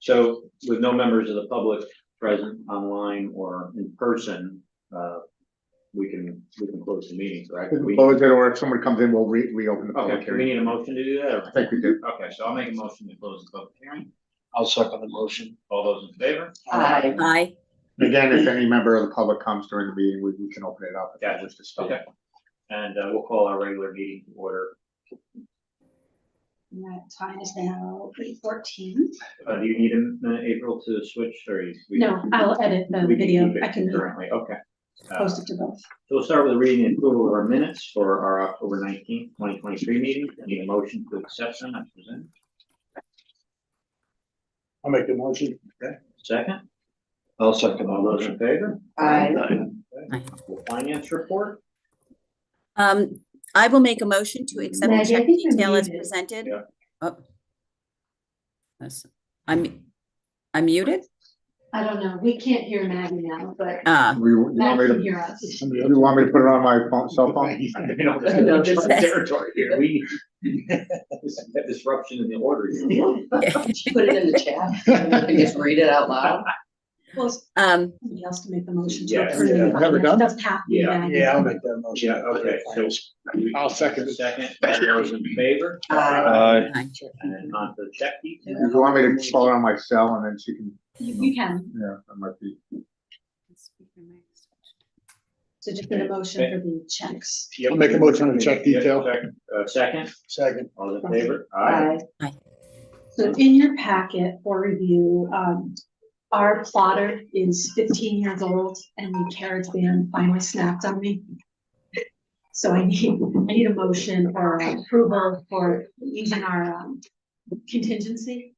So with no members of the public present online or in person, uh, we can, we can close the meeting, correct? We- Close it, or if someone comes in, we'll re- reopen the Okay, public do we hearing. need a motion to do that? I or- think we did. Okay, so I'll make a motion to close the public hearing. I'll second the motion. All those in favor? Aye. Aye. Again, if any member of the public comes during the meeting, we, we can open it up. if they Gotcha. wish to speak. Okay. And uh, we'll call our regular meeting to order. And that time is now eight fourteen. Uh, do you need a minute, April, to switch or? you- we- No, I'll edit the we can video. keep it I can Currently, okay. Uh, post it to both. So we'll start with reading and approval of our minutes for our October nineteenth, twenty twenty-three meeting. Need a motion to accept them as presented. I'll make the motion. Second, I'll second the all those in motion. favor? Aye. The Finance report? Um, I will make a motion to accept the Maggie, I check think you're detail as muted. presented. Yeah. Oh. That's- I'm, I'm muted? I don't know, we can't hear Maggie now, but Ah, We, you want Matt me can to, hear us. you want me to put it on my phone, cell phone? You know, this is- this is territory here. We, this is disruption in the order. here. She put it in the chat, I just read it out loud. Well, um, somebody else can make the motion to Yeah, approve. yeah. the Never finance. done? That's happening. Yeah, Maggie. Yeah, I'll make that motion. Yeah, okay, so- I'll second it. Second, all those in favor? Aye. aye. And then on to the check detail. You want me to call it on my cell and then she can, You, you can. yeah, that might be. So just get a motion for the checks. I'll make a motion to check detail. Uh, second, Second. all those in favor? So in your packet for review, um, our plotter is fifteen years old and the carriage ban finally snapped on me. So I need, I need a motion or approval for using our um, contingency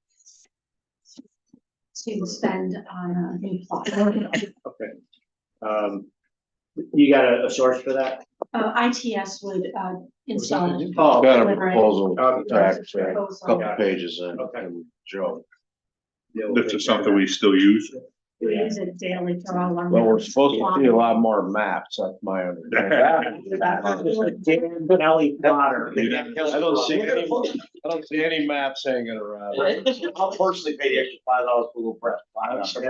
to spend on uh, a new plotter. Okay. Um, you got a, a source for that? Uh, ITS would, uh, install it. Oh, a proposal, couple proposal. pages in, Okay. Joe. yeah, we'll This take is something that. we still use. We Yeah. use it daily for all our. Well, we're supposed to see a lot more maps, that's my understanding. Ellie Potter. I don't see any, I don't see any maps hanging around. I'll personally pay the extra five dollars for Google Press.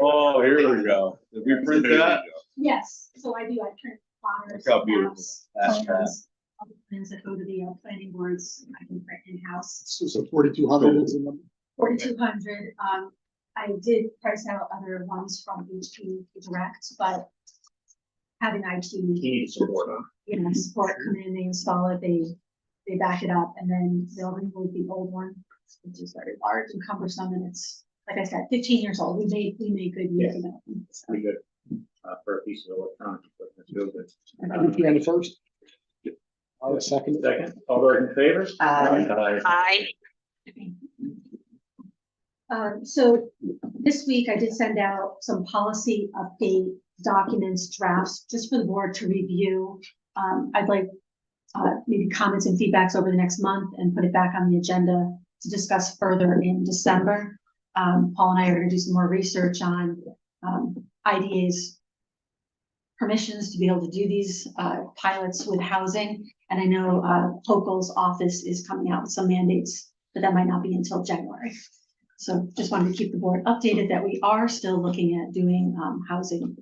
Oh, here we go. Did we print that? Yes, so I do, I print plotters, Look how beautiful maps, that's plans, all the plans that go to the uh, planning boards, I can print in-house. This is a forty-two hundred. Forty-two hundred, um, I did price out other ones from HP Direct, but having IT, He needs support on. you know, support come in, they install it, they, they back it up, and then they'll remove the old one, which is very large and cumbersome, and it's, like I said, fifteen years old, we made, we made good use of it. so. Pretty good, uh, for a piece of electronic equipment, real good. on the first? I'll second it. Second, all those in favor? Aye. Aye. Um, so this week I did send out some policy update documents, drafts, just for the board to review. Um, I'd like, uh, maybe comments and feedbacks over the next month and put it back on the agenda to discuss further in December. Um, Paul and I are gonna do some more research on, um, IDA's permissions to be able to do these, uh, pilots with housing. And I know, uh, Hokel's office is coming out with some mandates, but that might not be until January. So just wanted to keep the board updated that we are still looking at doing um housing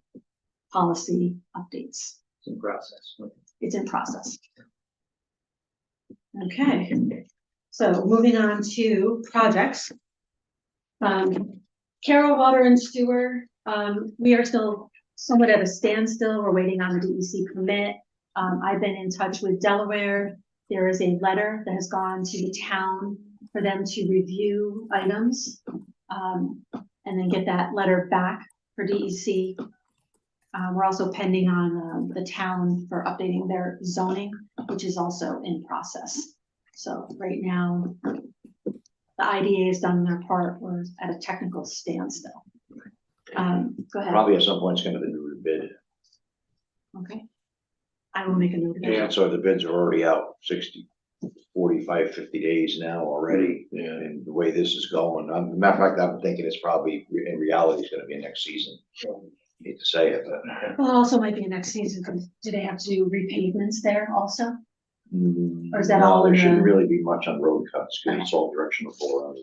policy updates. It's in process. It's in process. Okay, so moving on to projects. Um, Carroll Water and Sewer, um, we are still somewhat at a standstill. We're waiting on the DEC permit. Um, I've been in touch with Delaware. There is a letter that has gone to the town for them to review items. um, and then get that letter back for DEC. Uh, we're also pending on um, the town for updating their zoning, which is also in process. So right now, the IDA has done their part. We're at a technical standstill. Um, go ahead. Probably at some point it's gonna be a bid, Okay. I will make a note of that. and so the bids are already out 60, 45, 50 days now already. And the way this is going, I'm, matter of fact, I'm thinking it's probably, in reality, it's gonna be next season. Hate to say it, but. Well, it also might be next season, 'cause do they have to do repavements there also? mm, Or is that no, all in There shouldn't the- really be much on road cuts, because it's all directional four.